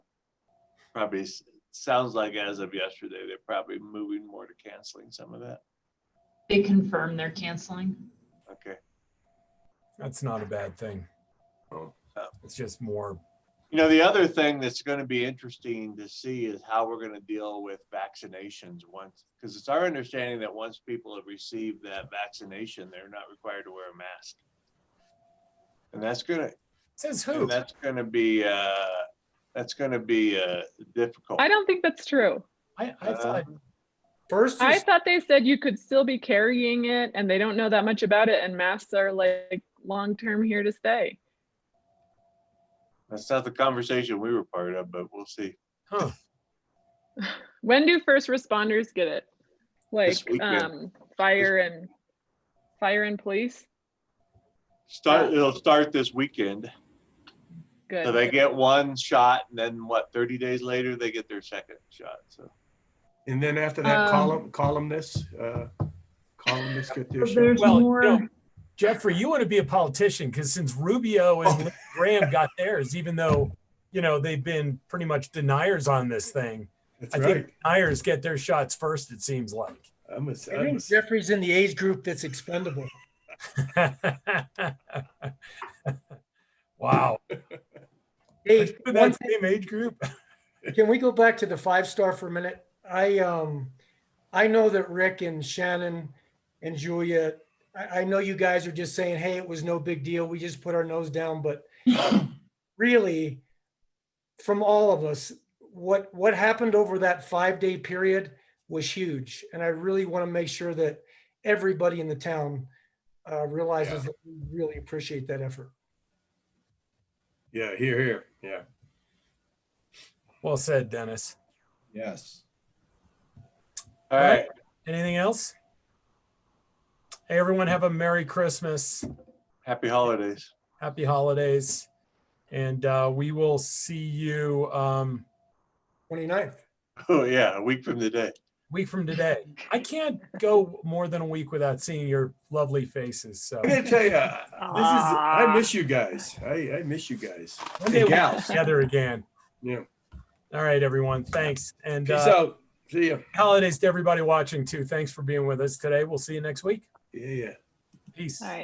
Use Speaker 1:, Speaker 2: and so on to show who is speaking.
Speaker 1: probably, s- sounds like as of yesterday, they're probably moving more to canceling some of that.
Speaker 2: They confirm they're canceling.
Speaker 1: Okay.
Speaker 3: That's not a bad thing.
Speaker 4: Oh.
Speaker 3: It's just more,
Speaker 1: You know, the other thing that's going to be interesting to see is how we're going to deal with vaccinations once, because it's our understanding that once people have received that vaccination, they're not required to wear a mask. And that's gonna,
Speaker 3: says who?
Speaker 1: and that's gonna be, uh, that's gonna be, uh, difficult.
Speaker 5: I don't think that's true.
Speaker 3: I,
Speaker 4: Uh,
Speaker 3: I thought,
Speaker 1: Um,
Speaker 3: first,
Speaker 5: I
Speaker 3: is-
Speaker 5: thought they said you could still be carrying it and they don't know that much about it and masks are like long-term here to stay.
Speaker 1: That's not the conversation we were part of, but we'll see.
Speaker 3: huh,
Speaker 5: When do first responders get it? Like,
Speaker 1: This weekend.
Speaker 5: um, fire and, fire and police?
Speaker 1: Start, it'll start this weekend. So
Speaker 5: Good.
Speaker 1: they get one shot and then what, thirty days later, they get their second shot, so.
Speaker 4: And then after that,
Speaker 5: Um,
Speaker 4: column, columnists, uh, columnists get their shot.
Speaker 2: There's
Speaker 3: Well, you
Speaker 2: more.
Speaker 3: know, Jeffrey, you want to be a politician because since Rubio
Speaker 4: Oh.
Speaker 3: and Lindsey Graham got theirs, even though, you know, they've been pretty much deniers on this thing.
Speaker 4: That's
Speaker 3: I
Speaker 4: right.
Speaker 3: think deniers get their shots first, it seems like.
Speaker 4: I'm a, I'm
Speaker 6: I
Speaker 4: a,
Speaker 6: think Jeffrey's in the age group that's expendable.
Speaker 3: Wow.
Speaker 6: Hey,
Speaker 3: That's
Speaker 6: one
Speaker 3: the same age group.
Speaker 6: Can we go back to the five star for a minute? I um, I know that Rick and Shannon and Julia, I, I know you guys are just saying, hey, it was no big deal. We just put our nose down, but really, from all of us, what what happened over that five day period was huge, and I really want to make sure that everybody in the town uh, realizes that we really appreciate that effort.
Speaker 4: yeah, here, here, yeah.
Speaker 3: Well said, Dennis.
Speaker 4: Yes.
Speaker 1: All right,
Speaker 3: Anything else? Hey, everyone, have a Merry Christmas.
Speaker 1: happy holidays.
Speaker 3: happy holidays. And uh, we will see you um,
Speaker 6: 29th.
Speaker 1: Oh, yeah, a week from today.
Speaker 3: week from today. I can't go more than a week without seeing your lovely faces. So
Speaker 4: I'm gonna tell you, this is, I miss you guys. I, I miss you guys.
Speaker 3: one day
Speaker 4: Hey,
Speaker 3: we'll get
Speaker 4: gals,
Speaker 3: together again.
Speaker 4: yeah.
Speaker 3: All right, everyone. Thanks. And
Speaker 4: Peace
Speaker 3: uh,
Speaker 4: out. See ya.
Speaker 3: holidays to everybody watching too. Thanks for being with us today. We'll see you next week.
Speaker 4: Yeah, yeah.
Speaker 3: Peace.
Speaker 5: All right.